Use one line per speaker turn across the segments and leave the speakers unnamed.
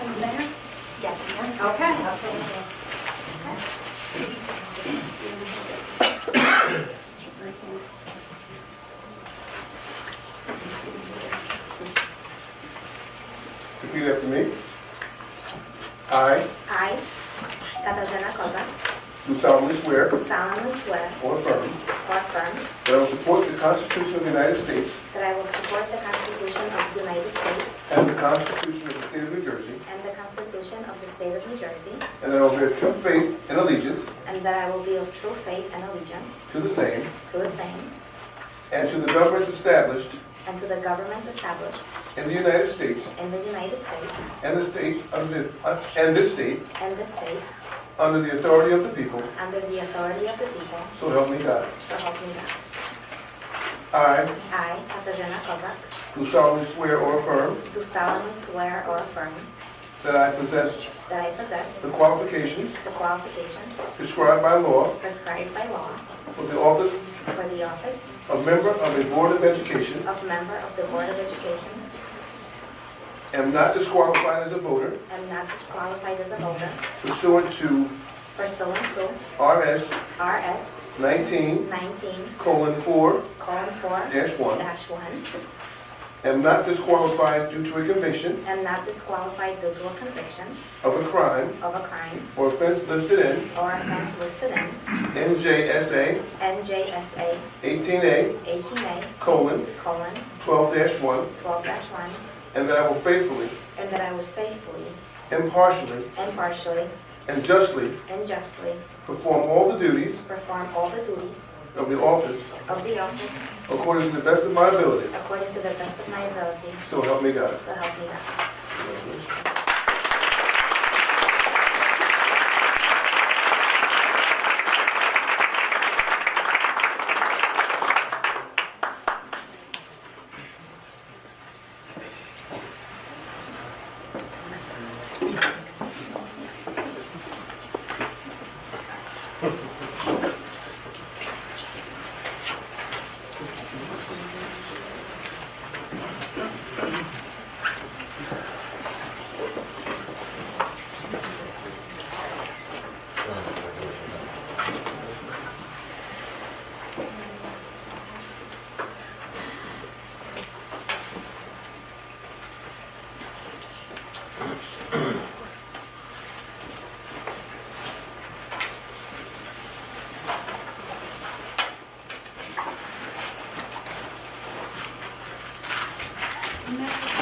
And there?
Yes, ma'am.
Okay, absolutely.
Repeat after me. I
I, Katarzyna Kozak,
do solemnly swear
solemnly swear
or affirm
or affirm
that I will support the Constitution of the United States
that I will support the Constitution of the United States
and the Constitution of the State of New Jersey,
and the Constitution of the State of New Jersey,
and that I will bear true faith and allegiance
and that I will be of true faith and allegiance
to the same
to the same
and to the governments established
and to the governments established
in the United States
in the United States
and the state under uh, and this state
and this state
under the authority of the people.
under the authority of the people,
So help me God.
so help me God.
I
I, Katarzyna Kozak,
do solemnly swear or affirm
do solemnly swear or affirm
that I possess
that I possess
the qualifications
the qualifications
prescribed by law
prescribed by law
for the office
for the office
of member of a Board of Education
of member of the Board of Education
am not disqualified as a voter
am not disqualified as a voter
pursuant to
pursuant to
RS
RS
19
19
colon 4
colon 4
dash 1.
dash 1
Am not disqualified due to a conviction
am not disqualified due to a conviction
of a crime
of a crime
or offense listed in
or offense listed in
NJSA
NJSA
18A
18A
colon
colon
12 dash 1,
12 dash 1
and that I will faithfully,
and that I will faithfully,
impartially,
impartially,
and justly
and justly
perform all the duties
perform all the duties
of the office
of the office
according to the best of my ability.
according to the best of my ability,
So help me God.
so help me God.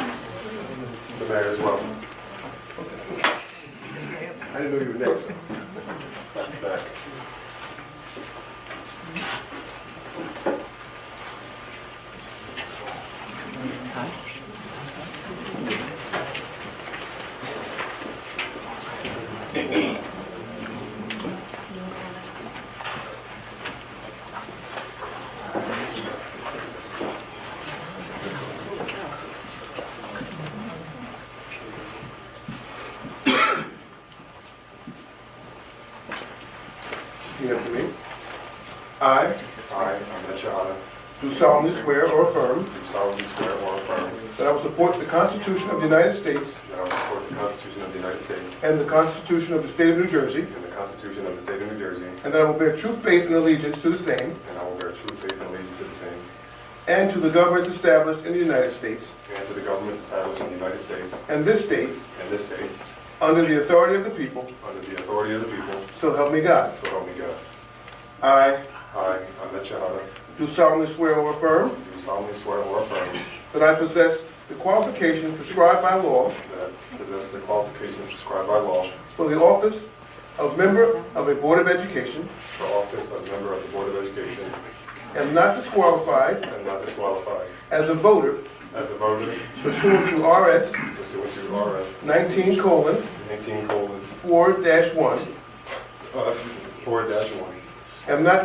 The mayor as well. I didn't know you were next. Back. Repeat after me. I
I, Ahmed Shahada,
do solemnly swear or affirm
do solemnly swear or affirm
that I will support the Constitution of the United States
that I will support the Constitution of the United States
and the Constitution of the State of New Jersey,
and the Constitution of the State of New Jersey,
and that I will bear true faith and allegiance to the same
and I will bear true faith and allegiance to the same,
and to the governments established in the United States
and to the governments established in the United States
and this state
and this state,
under the authority of the people,
under the authority of the people,
so help me God.
so help me God.
I
I, Ahmed Shahada,
do solemnly swear or affirm
do solemnly swear or affirm
that I possess the qualifications prescribed by law
that I possess the qualifications prescribed by law
for the office of member of a Board of Education,
for office of member of the Board of Education,
am not disqualified
and not disqualified
as a voter
as a voter
pursuant to RS
pursuant to RS
19 colon
19 colon
4 dash 1,
Uh, Oh, four dash one.
am not